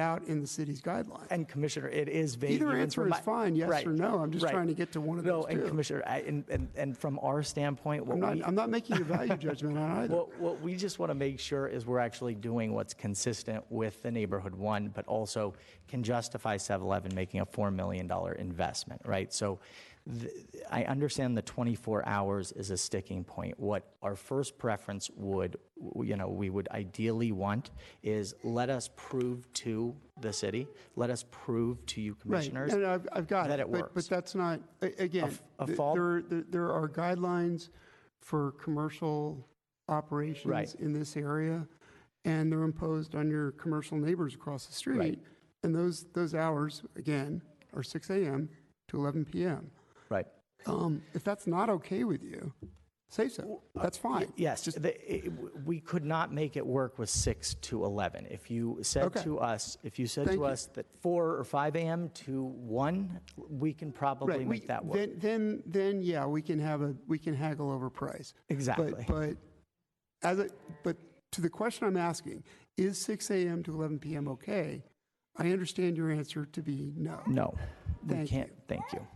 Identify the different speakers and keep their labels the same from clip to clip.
Speaker 1: out in the city's guidelines.
Speaker 2: And Commissioner, it is vague.
Speaker 1: Either
Speaker 2: even
Speaker 1: answer
Speaker 2: from
Speaker 1: is
Speaker 2: my-
Speaker 1: fine, yes
Speaker 2: Right,
Speaker 1: or no. I'm just
Speaker 2: right.
Speaker 1: trying to get to one of
Speaker 2: No,
Speaker 1: those
Speaker 2: and
Speaker 1: two.
Speaker 2: Commissioner, I, and, and, and from our standpoint, what
Speaker 1: I'm not,
Speaker 2: we,
Speaker 1: I'm not making a value judgment on either.
Speaker 2: what, what we just want to make sure is we're actually doing what's consistent with the neighborhood one, but also can justify 7-Eleven making a $4 million investment, right? So th- I understand the 24 hours is a sticking point. What our first preference would, w- you know, we would ideally want is let us prove to the city, let us prove to you
Speaker 1: Right,
Speaker 2: commissioners.
Speaker 1: and I've, I've got it.
Speaker 2: that it
Speaker 1: but- But
Speaker 2: works.
Speaker 1: that's not, a- again,
Speaker 2: f- a
Speaker 1: th-
Speaker 2: fault?
Speaker 1: there, are- there- there are guidelines for commercial operations
Speaker 2: Right.
Speaker 1: in this area, and they're imposed on your commercial neighbors across the street. And those, those hours, again, are 6 AM to 11 PM.
Speaker 2: Right.
Speaker 1: Um, If that's not okay with you, say so. That's fine.
Speaker 2: Yes, the- it- w- we could not make it work with 6 to 11. If you said
Speaker 1: Okay.
Speaker 2: to us, if you said
Speaker 1: Thank
Speaker 2: to
Speaker 1: you.
Speaker 2: us that 4 or 5 AM to 1, we can probably
Speaker 1: Right, we-
Speaker 2: make that work.
Speaker 1: Then, then, then, yeah, we can have a, we can haggle over price.
Speaker 2: Exactly.
Speaker 1: But, but, as a, but to the question I'm asking, is 6 AM to 11 PM okay? I understand your answer to be no.
Speaker 2: No, we
Speaker 1: Thank
Speaker 2: can't, thank you.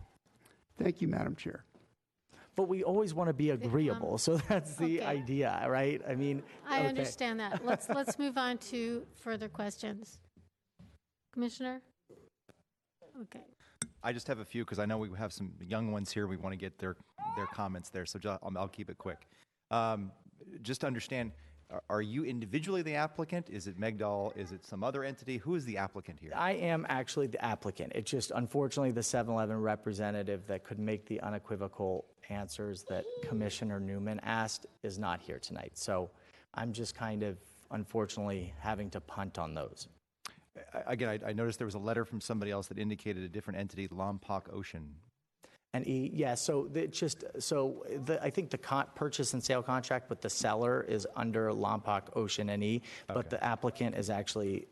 Speaker 1: Thank you, Madam Chair.
Speaker 2: But we always want to be agreeable, so that's the
Speaker 3: um, okay.
Speaker 2: idea, right? I mean.
Speaker 3: I
Speaker 2: okay.
Speaker 3: understand that. Let's, let's move on to further questions. Commissioner? Okay.
Speaker 4: I just have a few because I know we have some young ones here. We want to get their their comments there, so ju- I'll, I'll keep it quick. Um, just to understand: are, are you individually the applicant? Is it Megdal? Is it some other entity? Who is the applicant here?
Speaker 2: I am actually the applicant. It's just unfortunately the 7-Eleven representative that could make the unequivocal answers that Commissioner Newman asked is not here tonight. So I'm just kind of unfortunately having to punt on those.
Speaker 4: I, again, I, I noticed there was a letter from somebody else that indicated a different entity, Lompoc Ocean.
Speaker 2: And E, yeah, so the- it's just, so the, I think the con, purchase and sale contract with the seller is under Lompoc Ocean and E, but the applicant is actually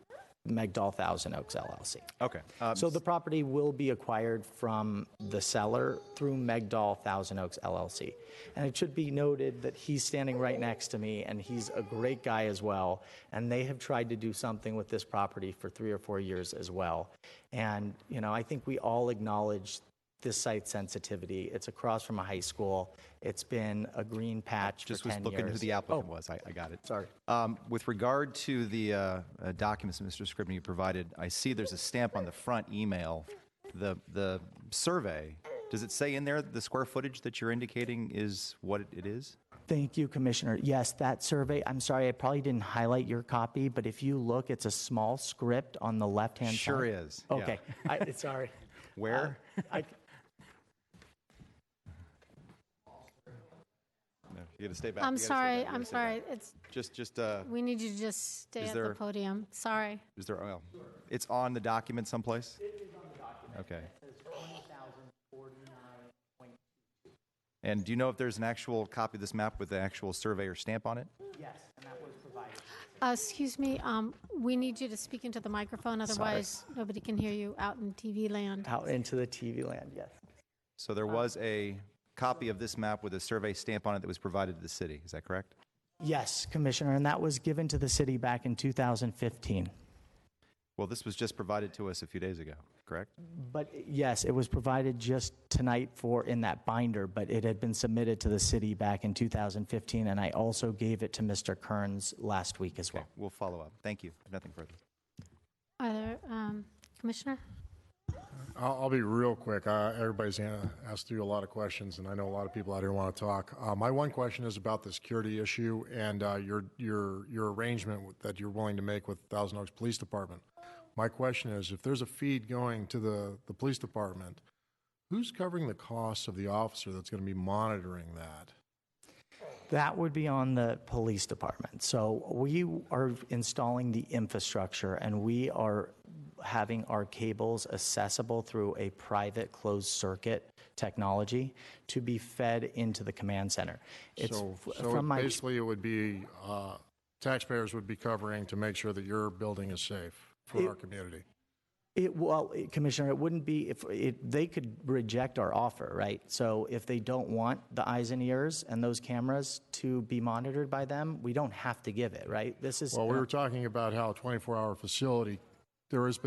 Speaker 2: Megdal Thousand Oaks LLC.
Speaker 4: Okay. Um,
Speaker 2: So the property will be acquired from the seller through Megdal Thousand Oaks LLC. And it should be noted that he's standing right next to me, and he's a great guy as well. And they have tried to do something with this property for three or four years as well. And, you know, I think we all acknowledge this site sensitivity. It's across from a high school. It's been a green patch
Speaker 4: just
Speaker 2: for
Speaker 4: was
Speaker 2: 10
Speaker 4: looking who
Speaker 2: years. Oh,
Speaker 4: the applicant was. I, I got it.
Speaker 2: Sorry.
Speaker 4: Um, with regard to the uh, uh, documents that Mr. Scribner you provided, I see there's a stamp on the front email. The the survey. Does it say in there the square footage that you're indicating is what it is?
Speaker 2: Thank you, Commissioner. Yes, that survey, I'm sorry, I probably didn't highlight your copy, but if you look, it's a small script on the left-hand side.
Speaker 4: Sure is, yeah.
Speaker 2: Okay, Uh, I, sorry.
Speaker 4: Where?
Speaker 2: I,
Speaker 4: No, you gotta stay back.
Speaker 3: I'm
Speaker 4: You gotta stay back.
Speaker 3: sorry,
Speaker 4: You gotta
Speaker 3: I'm
Speaker 4: stay back.
Speaker 3: sorry. It's,
Speaker 4: Just just uh,
Speaker 3: we need you to just stay
Speaker 4: Is
Speaker 3: at the
Speaker 4: there-
Speaker 3: podium. Sorry.
Speaker 4: is there? Well, it's on the document someplace. Okay. And do you know if there's an actual copy of this map with the actual surveyor stamp on it?
Speaker 3: Uh, Excuse me, um, we need you to speak into the microphone, otherwise nobody can hear you out in TV land.
Speaker 2: out into the TV land, yes.
Speaker 4: So there was a copy of this map with a survey stamp on it that was provided to the city, is that correct?
Speaker 2: Yes, Commissioner, and that was given to the city back in 2015.
Speaker 4: Well, this was just provided to us a few days ago, correct?
Speaker 2: But yes, it was provided just tonight for, in that binder, but it had been submitted to the city back in 2015, and I also gave it to Mr. Kearns last week as well.
Speaker 4: Okay, we'll follow up. Thank you. I have Nothing further.
Speaker 3: Are there, um, Commissioner?
Speaker 5: I'll, I'll be real quick. Uh, everybody's a- asked you a lot of questions, and I know a lot of people out here want to talk. Uh, my one question is about the security issue and uh, your your your arrangement with- that you're willing to make with Thousand Oaks Police Department. My question is, if there's a feed going to the the police department, who's covering the costs of the officer that's going to be monitoring that?
Speaker 2: That would be on the police department. So we are installing the infrastructure and we are having our cables accessible through a private closed circuit technology to be fed into the command center. It's
Speaker 5: so,
Speaker 2: f-
Speaker 5: so
Speaker 2: from my
Speaker 5: basically, it would be uh, taxpayers would be covering to make sure that your building is safe for our community.
Speaker 2: It, well, it- Commissioner, it wouldn't be if it, they could reject our offer, right? So if they don't want the eyes and ears and those cameras to be monitored by them, we don't have to give it, right? This is
Speaker 5: Well, we were talking about how a 24 hour facility there is